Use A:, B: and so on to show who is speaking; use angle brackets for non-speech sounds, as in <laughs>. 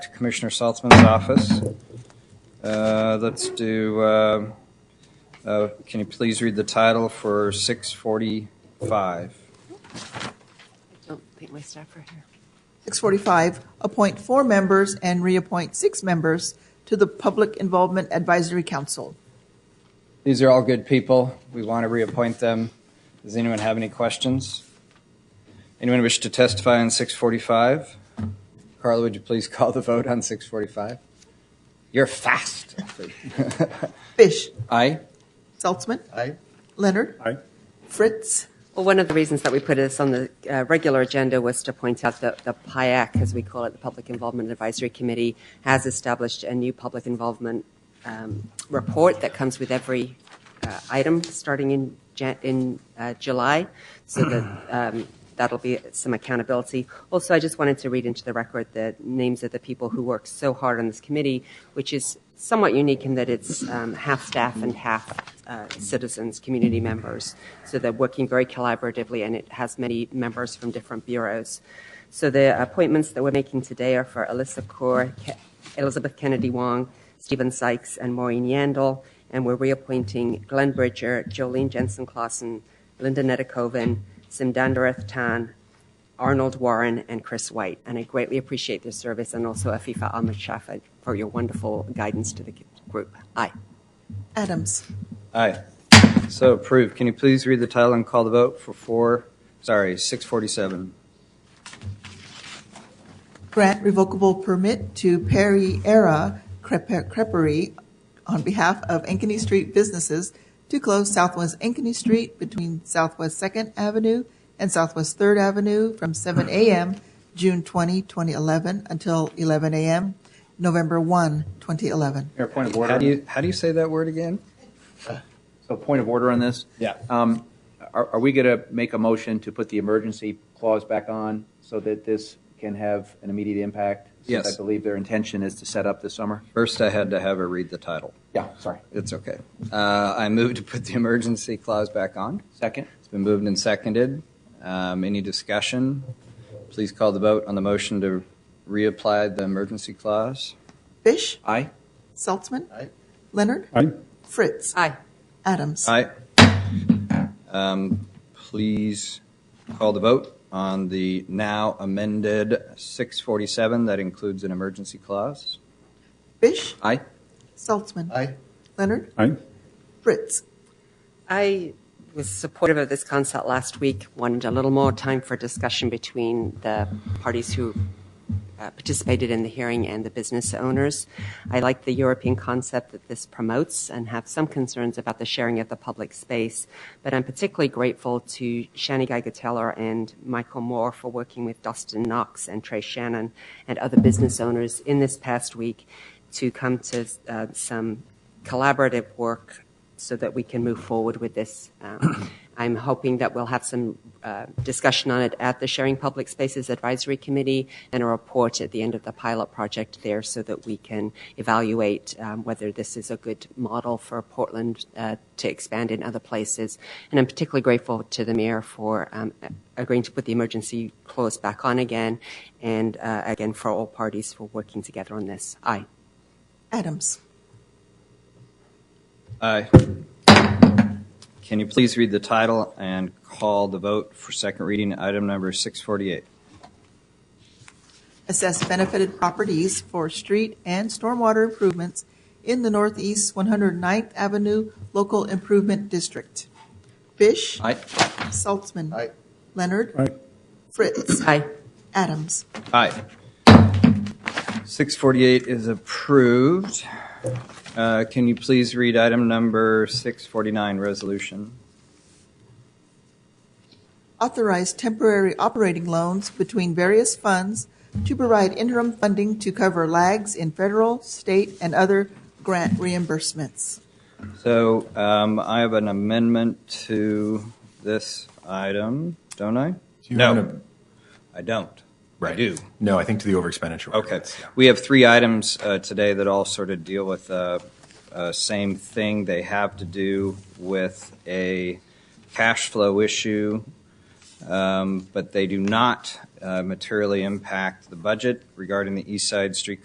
A: to Commissioner Saltzman's office. Uh, Let's do, uh, uh, can you please read the title for 645?
B: Don't think my staff are here.
C: 645, appoint four members and reappoint six members to the Public Involvement Advisory Council.
A: These are all good people. We want to reappoint them. Does anyone have any questions? Anyone wish to testify on 645? Carla, would you please <laughs> call the vote on 645? You're fast. <laughs>
C: Fish,
A: Aye?
C: Saltzman,
D: Aye.
C: Leonard,
D: Aye.
C: Fritz,
B: Well, one of the reasons that we put this on the uh, regular agenda was to point out that the PIAC, as we call it, the Public Involvement Advisory Committee, has established a new public involvement um, report that comes with every uh, item starting in, Jan- in uh, July, so that um, that'll be some accountability. Also, I just wanted to read into the record the names of the people who work so hard on this committee, which is somewhat unique in that it's um, half staff and half uh, citizens, community members. So they're working very collaboratively, and it has many members from different bureaus. So the appointments that we're making today are for Alyssa Kaur, Ke- Elizabeth Kennedy Wong, Stephen Sykes, and Maureen Yandel. And we're reappointing Glenn Bridger, Jolene Jensen Clausen, Linda Nedekoven, Simdandarath Tan, Arnold Warren, and Chris White. And I greatly appreciate their service and also Afifa Ahmed Shafa for your wonderful guidance to the group. Aye.
C: Adams.
A: Aye. So approved. Can you please read the title and call the vote for four, sorry, 647?
C: Grant revocable permit to Perry Era Crep- Creperie on behalf of Ankeny Street businesses to close Southwest Ankeny Street between Southwest Second Avenue and Southwest Third Avenue from seven AM, June 20, 2011, until eleven AM, November 1, 2011.
D: Mayor, point of
A: How do
D: order.
A: you, how do you say that word again?
D: So point of order on this?
A: Yeah.
D: Um, Are are we going to make a motion to put the emergency clause back on so that this can have an immediate impact? Since
A: Yes.
D: I believe their intention is to set up this summer?
A: First, I had to have her read the title.
D: Yeah, sorry.
A: It's okay. Uh, I move to put the emergency clause back on.
D: Second?
A: It's been moved and seconded. Um, Any discussion? Please call the vote on the motion to reapply the emergency clause.
C: Fish,
D: Aye?
C: Saltzman,
D: Aye.
C: Leonard,
E: Aye.
C: Fritz,
B: Aye.
C: Adams.
A: Aye. Um, Please call the vote on the now amended 647 that includes an emergency clause.
C: Fish,
A: Aye?
C: Saltzman,
D: Aye.
C: Leonard,
E: Aye.
C: Fritz,
B: I was supportive of this concept last week, wanted a little more time for discussion between the parties who uh, participated in the hearing and the business owners. I like the European concept that this promotes and have some concerns about the sharing of the public space, but I'm particularly grateful to Shani Geiger Taylor and Michael Moore for working with Dustin Knox and Trey Shannon and other business owners in this past week to come to uh, some collaborative work so that we can move forward with this. Um, <coughs> I'm hoping that we'll have some uh, discussion on it at the Sharing Public Spaces Advisory Committee and a report at the end of the pilot project there so that we can evaluate um, whether this is a good model for Portland uh, to expand in other places. And I'm particularly grateful to the mayor for um, agreeing to put the emergency clause back on again and uh, again for all parties for working together on this. Aye.
C: Adams.
A: Aye. Can you please read the title and call the vote for second reading, item number 648?
C: assess benefited properties for street and stormwater improvements in the Northeast 109th Avenue Local Improvement District. Fish.
A: Aye.
C: Saltzman. Leonard.
E: Aye.
C: Fritz.
B: Aye.
C: Adams.
A: Aye. 648 is approved. Uh, Can you please read item number 649, resolution?
C: Authorize temporary operating loans between various funds to provide interim funding to cover lags in federal, state, and other grant reimbursements.
A: So um, I have an amendment to this item, don't I?
F: Do you
A: No.
F: want to-
A: I don't. I
F: Right.
A: do.
F: No, I think to the overexpenditure.
A: Okay.
F: ordinance, yeah.
A: We have three items uh, today that all sort of deal with the uh, same thing. They have to do with a cash flow issue, um, but they do not uh, materially impact the budget regarding the East Side Street